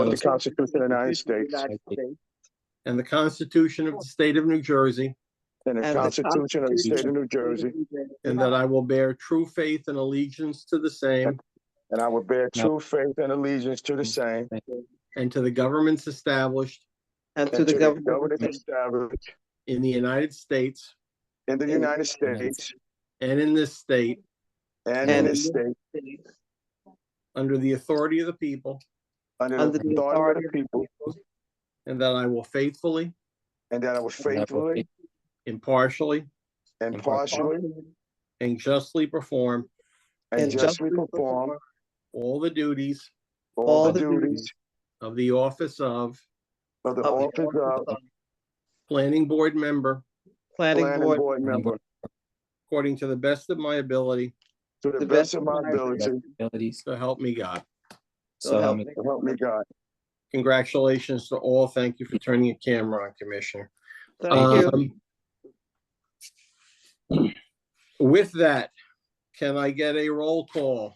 and the the Constitution of the United States United States, and the Constitution of the State of New Jersey, and the and the Constitution of the State of Constitution New Jersey, and that I will bear true faith and allegiance to the same and I will bear true faith and allegiance to the same and to the governments established And to and the government government established in the United States in the United States and in this state and in And- this state under the authority of the people, under the authority of the people, and that I will faithfully, and that I will faithfully, impartially, impartially, and justly perform and justly perform all the duties all the duties of the office of of the of the office of office Planning Board member Planning planning board board member according to the best of my ability, to the best of my ability, Abilities, so help me God. so help me. and help me God. Congratulations to all. Thank you for turning your camera on, Commissioner. Thank you. Um, With that, can I get a roll call?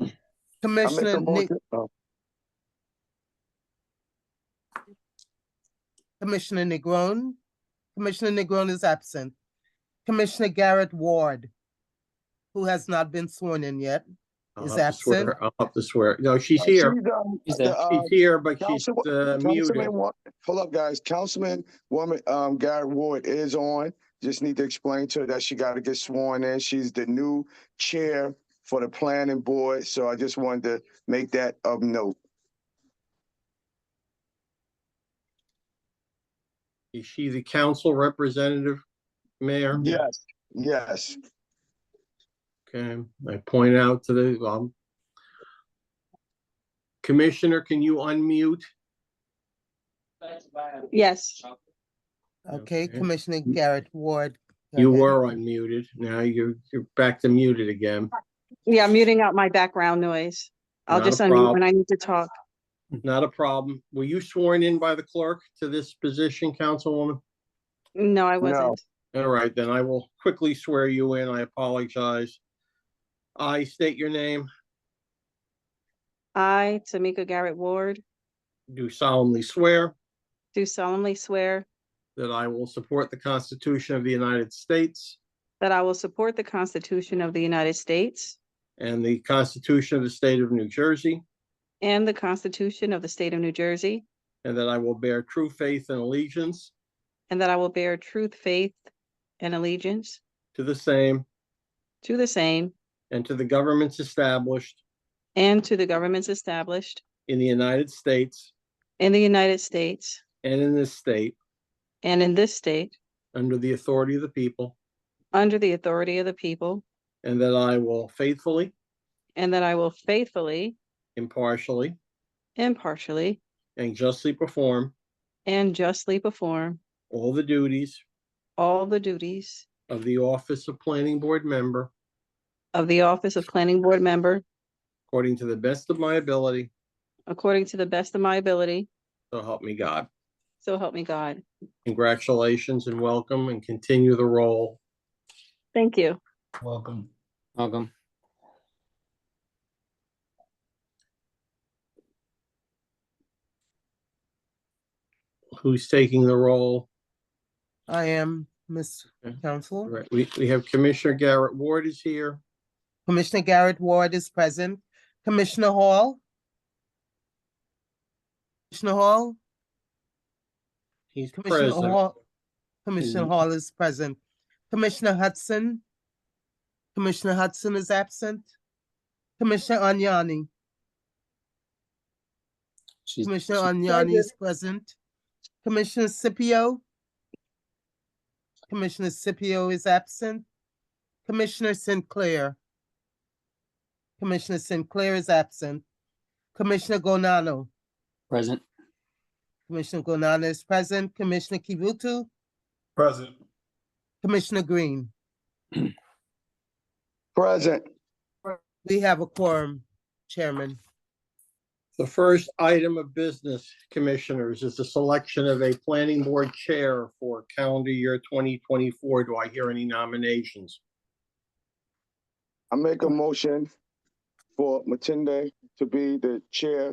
I make Commissioner a Nick, motion, oh, Commissioner Negron. Commissioner Negron is absent. Commissioner Garrett Ward, who has not been sworn in yet. I'll Is have to swear- absent? I'll have to swear. No, she's here. she's, um, Is the, that- uh, She's here, but she's Councilwo- uh, muted. Councilman, Wa- hold up, guys. Councilman woman, um, Garrett Ward is on. Just need to explain to her that she gotta get sworn in. She's the new chair for the planning board, so I just wanted to make that of note. Is she the council representative, Mayor? Yes. Yes, Okay, I point out to the, um, Commissioner, can you unmute? Yes, Okay, Okay. Commissioner Garrett Ward. go You ahead. were unmuted. Now you're, you're back to muted again. yeah, I'm muting out my background noise. I'll Not a just unmute problem. when I need to talk. Not a problem. Were you sworn in by the clerk to this position, Councilwoman? No, I wasn't. All right, then I will quickly swear you in. I apologize. I state your name, I, Tamika Garrett Ward, do solemnly swear do solemnly swear that I will support the Constitution of the United States that I will support the Constitution of the United States and the Constitution of the State of New Jersey, and the Constitution of the State of New Jersey, and that I will bear true faith and allegiance and that I will bear truth, faith, and allegiance to the same to the same and to the governments established and to the governments established in the United States in the United States and in this state and in this state under the authority of the people, under the authority of the people, and that I will faithfully, and that I will faithfully, impartially, impartially, and justly perform and justly perform all the duties all the duties of the office of planning board member of the office of planning board member according to the best of my ability, according to the best of my ability, so help me God. so help me God. Congratulations and welcome and continue the role. Thank you. Welcome. Welcome. Who's taking the role? I am, Ms. Okay. Council. Right, we, we have Commissioner Garrett Ward is here. Commissioner Garrett Ward is present. Commissioner Hall? Commissioner Hall? He's Commissioner present. Hall- Commissioner Mhm. Hall is present. Commissioner Hudson? Commissioner Hudson is absent. Commissioner Agnani? She's, Commissioner Agnani is present. Commissioner Scipio? Commissioner Scipio is absent. Commissioner Sinclair? Commissioner Sinclair is absent. Commissioner Gonano? present. Commissioner Gonano is present. Commissioner Kivutu? Present. Commissioner Green? present. We have a quorum, Chairman. The first item of business, Commissioners, is the selection of a planning board chair for calendar year twenty twenty-four. Do I hear any nominations? I make a motion for Matinda to be the chair